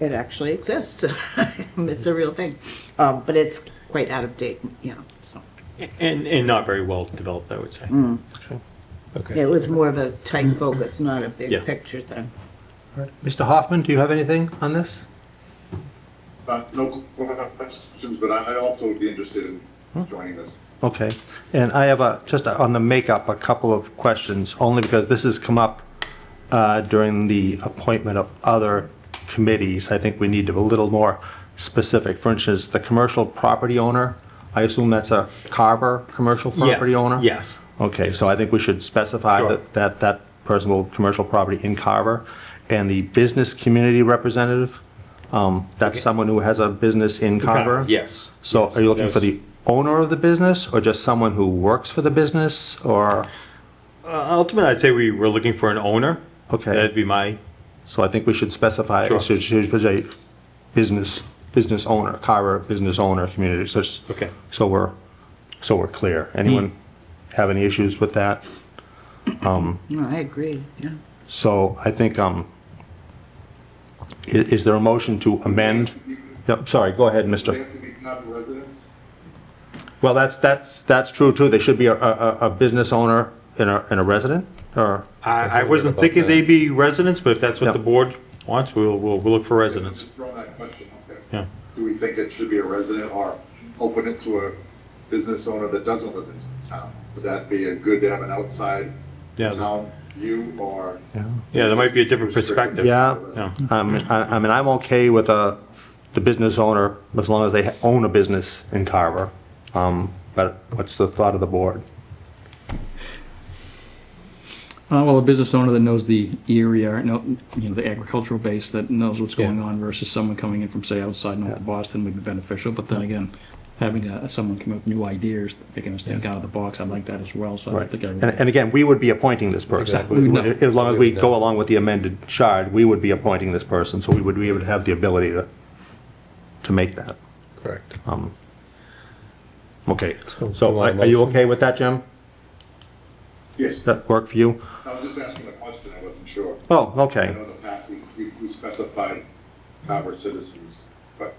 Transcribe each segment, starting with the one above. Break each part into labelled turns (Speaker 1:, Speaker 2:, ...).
Speaker 1: it actually exists. It's a real thing. Um, But it's quite out of date, you know, so.
Speaker 2: And, and not very well developed, I would say.
Speaker 3: Hmm, Okay.
Speaker 1: It was more of a tight focus, not a big
Speaker 2: Yeah.
Speaker 1: picture thing.
Speaker 3: All right. Mr. Hoffman, do you have anything on this?
Speaker 4: Uh, No questions, but I I also would be interested in
Speaker 2: Hmm.
Speaker 4: joining this.
Speaker 3: Okay, and I have a, just on the makeup, a couple of questions, only because this has come up uh, during the appointment of other committees. I think we need to be a little more specific. For instance, the commercial property owner, I assume that's a Carver commercial property
Speaker 2: Yes,
Speaker 3: owner?
Speaker 2: Yes.
Speaker 3: Okay, so I think we should specify
Speaker 2: Sure.
Speaker 3: that, that that person will, commercial property in Carver. And the business community representative, um, that's someone who has a business in Carver?
Speaker 2: Uh, Yes.
Speaker 3: So are you looking for
Speaker 2: Yes.
Speaker 3: the owner of the business or just someone who works for the business or,
Speaker 2: Uh, Ultimately, I'd say we were looking for an owner.
Speaker 3: Okay.
Speaker 2: That'd be my,
Speaker 3: so I think we should specify,
Speaker 2: Uh, Sure.
Speaker 3: should, should put a business, business owner, Carver business owner community, so, it's-
Speaker 2: Okay.
Speaker 3: so we're, so we're clear. Anyone
Speaker 2: Hmm.
Speaker 3: have any issues with that?
Speaker 1: No, I agree, yeah.
Speaker 3: So I think, um, i- is there a motion to amend? Yep, sorry, go ahead,
Speaker 4: Do they
Speaker 3: mister.
Speaker 4: have to be Carver residents?
Speaker 3: Well, that's, that's, that's true too. They should be a, a, a- a business owner and a, and a resident or?
Speaker 2: I, I wasn't thinking they'd be residents, but if that's what
Speaker 3: Yep.
Speaker 2: the board wants, we'll, we'll, we'll look for residents.
Speaker 4: Just throw that question out there.
Speaker 2: Yeah.
Speaker 4: Do we think it should be a resident or open it to a business owner that doesn't live in town? Would that be a good to have an outside
Speaker 2: Yeah.
Speaker 4: town view or?
Speaker 2: Yeah, there might be a different perspective.
Speaker 3: Yeah.
Speaker 2: Yeah.
Speaker 3: Um, I, I mean, I'm okay with uh the business owner as long as they ha- own a business in Carver. Um, but what's the thought of the board?
Speaker 5: Uh, well, a business owner that knows the area, know, you know, the agricultural base that knows what's going on versus someone coming in from, say, outside North Boston would be beneficial. But then again, having uh someone come up with new ideas, making us think out of the box, I like that as well. So I don't think I would.
Speaker 3: And, and again, we would be appointing this person.
Speaker 5: Exactly. We would
Speaker 3: As long as we go along with the amended chart, we would be appointing this person, so we would be able to have the ability to, to make that.
Speaker 6: Correct.
Speaker 3: Um, Okay,
Speaker 6: So, do you
Speaker 3: so
Speaker 6: want
Speaker 3: are
Speaker 6: a
Speaker 3: are you
Speaker 6: motion?
Speaker 3: okay with that, Jim?
Speaker 4: Yes,
Speaker 3: Does that work for you?
Speaker 4: I was just asking a question, I wasn't sure.
Speaker 3: Oh,
Speaker 4: I
Speaker 3: okay,
Speaker 4: know in the past we- we we specified Carver citizens, but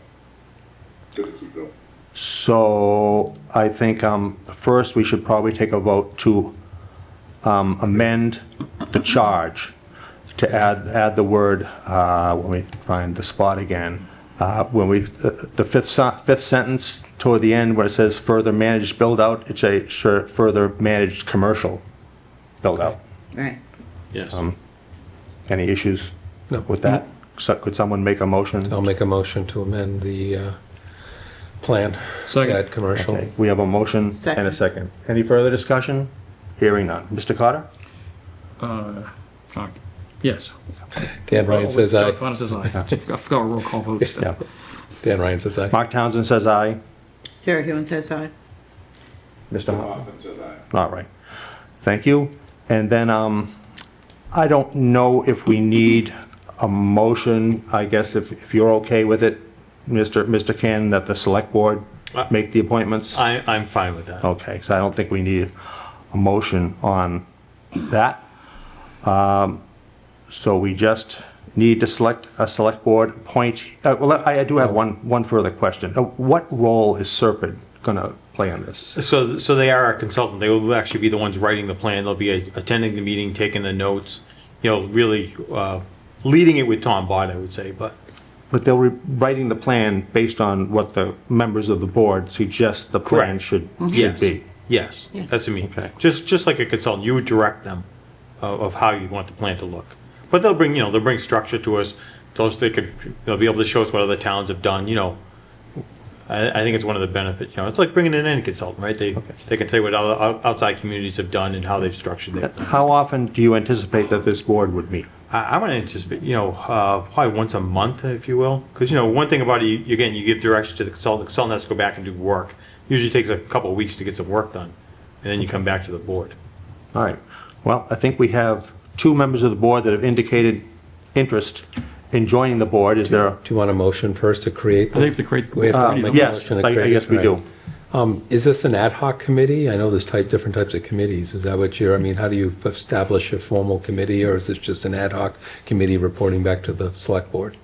Speaker 4: good to keep going.
Speaker 3: so I think um, first we should probably take a vote to um, amend the charge to add, add the word, uh, let me find the spot again, Uh, when we, the the fifth, sen- fifth sentence toward the end where it says further managed build-out, it's a sure- further managed commercial build-out.
Speaker 1: Right.
Speaker 2: Yes.
Speaker 3: Any issues
Speaker 6: No.
Speaker 3: with that? So Could someone make a motion?
Speaker 6: I'll make a motion to amend the uh, plan.
Speaker 5: Second.
Speaker 6: Add commercial.
Speaker 3: Okay, We have a motion and a
Speaker 1: Second.
Speaker 3: second. Any further discussion? Hearing none. Mr. Carter?
Speaker 5: Uh, uh, yes.
Speaker 6: Dan Ryan says
Speaker 5: John
Speaker 6: aye.
Speaker 5: Connor says aye. I forgot roll call votes.
Speaker 3: Yeah.
Speaker 6: Dan Ryan says aye.
Speaker 3: Mark Townsend says aye.
Speaker 1: Sarah Hewen says aye.
Speaker 3: Mr. Hoffman?
Speaker 4: Often says I.
Speaker 3: All right. Thank you. And then, um, I don't know if we need a motion, I guess, if, if you're okay with it, Mr. Mr. Cannon, that the select board
Speaker 2: Uh,
Speaker 3: make the appointments?
Speaker 2: I, I'm fine with that.
Speaker 3: Okay, so I don't think we need a motion on that. Um, So we just need to select a select board appoint, uh, well, I I do have one, one further question. Uh, What role is Serpent going to play on this?
Speaker 2: So, so they are our consultant. They will actually be the ones writing the plan. They'll be uh, attending the meeting, taking the notes, you know, really, uh, leading it with Tom Bott, I would say, but
Speaker 3: But they'll be writing the plan based on what the members of the board suggest the plan
Speaker 2: Correct. Mm-hmm.
Speaker 3: should,
Speaker 2: yes.
Speaker 3: should be.
Speaker 2: Yes, that's what I mean.
Speaker 3: Okay.
Speaker 2: Just, just like a consultant, you would direct them of, of how you want the plan to look. But they'll bring, you know, they'll bring structure to us, tell us they could, they'll be able to show us what other towns have done, you know. I, I think it's one of the benefits, you know, it's like bringing in any consultant, right? They, they can tell you what other ou- outside communities have done and how they've structured their plan.
Speaker 3: How often do you anticipate that this board would meet?
Speaker 2: I, I want to anticipate, you know, uh, probably once a month, if you will. Because, you know, one thing about it, you, again, you give direction to the consultant, the consultant has to go back and do work. Usually takes a couple of weeks to get some work done, and then you come back to the board.
Speaker 3: All right. Well, I think we have two members of the board that have indicated interest in joining the board. Is there, a-
Speaker 6: Do you want a motion first to create?
Speaker 5: I think the create.
Speaker 6: We have to make a
Speaker 3: Um, yes,
Speaker 6: motion to
Speaker 3: I I
Speaker 6: create
Speaker 3: guess
Speaker 6: it,
Speaker 3: we
Speaker 6: right.
Speaker 3: do.
Speaker 6: Um, Is this an ad hoc committee? I know there's type, different types of committees. Is that what you're, I mean, how do you establish a formal committee? Or is this just an ad hoc committee reporting back to the select board?